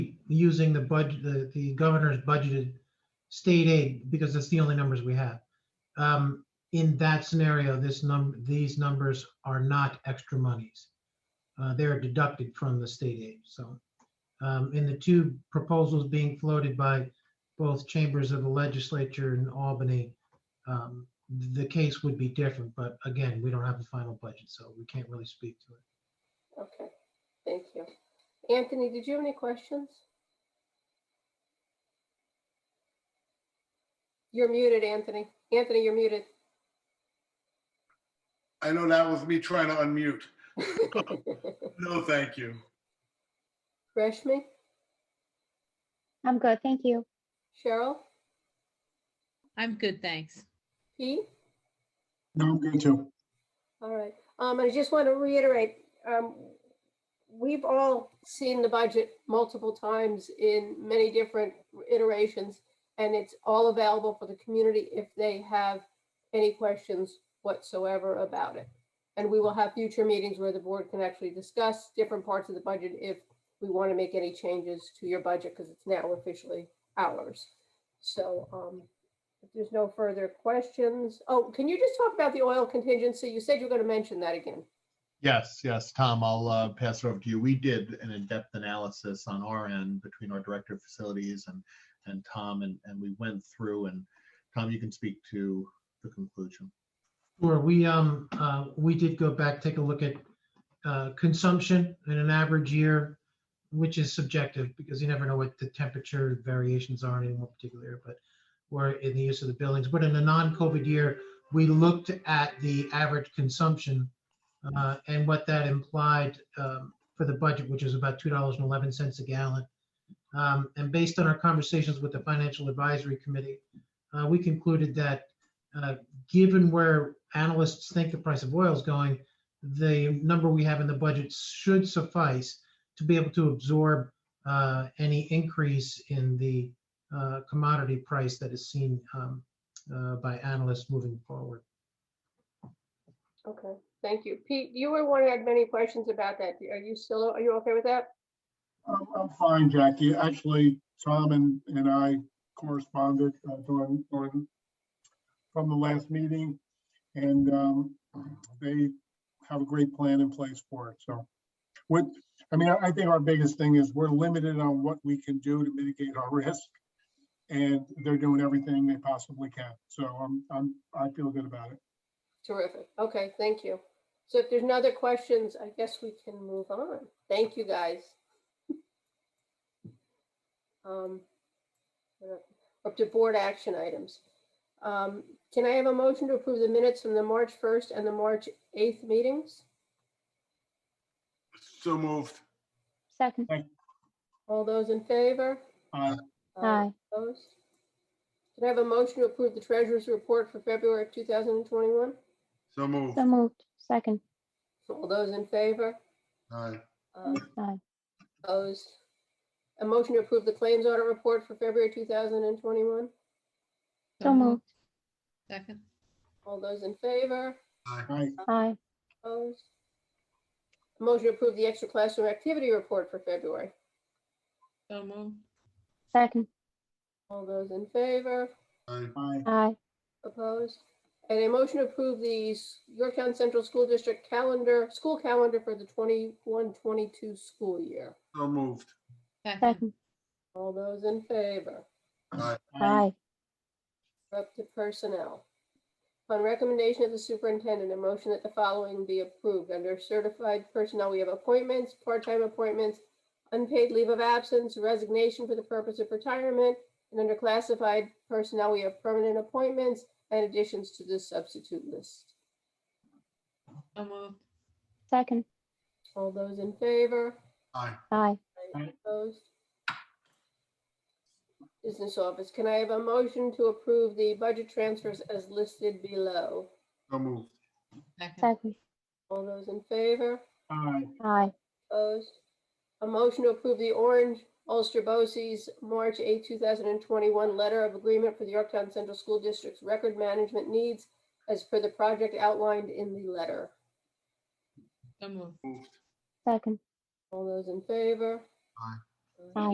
using the budget, the, the governor's budgeted state aid, because that's the only numbers we have. Um, In that scenario, this num, these numbers are not extra monies. Uh, They're deducted from the state aid, so. um, And the two proposals being floated by both chambers of the legislature in Albany, um, the case would be different, but again, we don't have the final budget, so we can't really speak to it. Okay, thank you. Anthony, did you have any questions? You're muted, Anthony. Anthony, you're muted. I know that was me trying to unmute. No, thank you. Rashmi, I'm good, thank you. Cheryl, I'm good, thanks. Pete? No, I'm good too. All right, um, and I just want to reiterate, um, we've all seen the budget multiple times in many different iterations. And it's all available for the community if they have any questions whatsoever about it. And we will have future meetings where the board can actually discuss different parts of the budget if we want to make any changes to your budget, because it's now officially ours. So, um, if there's no further questions, oh, can you just talk about the oil contingency? You said you were going to mention that again. Yes, yes, Tom, I'll uh, pass it over to you. We did an in-depth analysis on our end between our director of facilities and, and Tom, and, and we went through, and Tom, you can speak to the conclusion. Sure, we, um, uh, we did go back, take a look at, uh, consumption in an average year, which is subjective because you never know what the temperature variations are in any one particular year, but or in the use of the buildings. But in a non-COVID year, we looked at the average consumption, uh, and what that implied, um, for the budget, which is about two dollars and eleven cents a gallon. Um, and based on our conversations with the Financial Advisory Committee, uh, we concluded that, uh, given where analysts think the price of oil is going, the number we have in the budget should suffice to be able to absorb uh, any increase in the uh, commodity price that is seen um, uh, by analysts moving forward. Okay, thank you. Pete, you were one that had many questions about that. Are you still, are you okay with that? I'm, I'm fine, Jackie. Actually, Tom and, and I corresponded uh, during, during, from the last meeting. And, um, they have a great plan in place for it, so. With, I mean, I I think our biggest thing is we're limited on what we can do to mitigate our risk. And they're doing everything they possibly can, so I'm, I'm, I feel good about it. Terrific. Okay, thank you. So if there's no other questions, I guess we can move on. Thank you, guys. Um, we're up- Up to board action items. Um, Can I have a motion to approve the minutes from the March 1st and the March 8th meetings? So moved. Second, All those in favor? Uh, Uh, Aye. Opposed? Can I have a motion to approve the treasurer's report for February 2021? So moved. so moved, second, All those in favor? Aye. Uh, aye, Opposed? A motion to approve the claims audit report for February 2021? so moved, Second, All those in favor? I, aye, Opposed? A motion to approve the extra classroom activity report for February? so moved, second, All those in favor? Aye. I, aye, Opposed? And a motion to approve the S- Yorktown Central School District calendar, school calendar for the 21-22 school year? So moved. second, second, All those in favor? Aye. I, aye, We're Up to personnel. On recommendation of the superintendent, a motion that the following be approved. Under certified personnel, we have appointments, part-time appointments, unpaid leave of absence, resignation for the purpose of retirement. And under classified personnel, we have permanent appointments and additions to the substitute list. so moved, second, All those in favor? Aye. aye, Aye. Opposed? Business office, can I have a motion to approve the budget transfers as listed below? So moved. second, second, All those in favor? I, aye, Opposed? A motion to approve the Orange Ulster Bose's March 8, 2021 Letter of Agreement for the Yorktown Central School District's Record Management Needs as per the project outlined in the letter. so moved. Moved. second. All those in favor? Aye. Aye.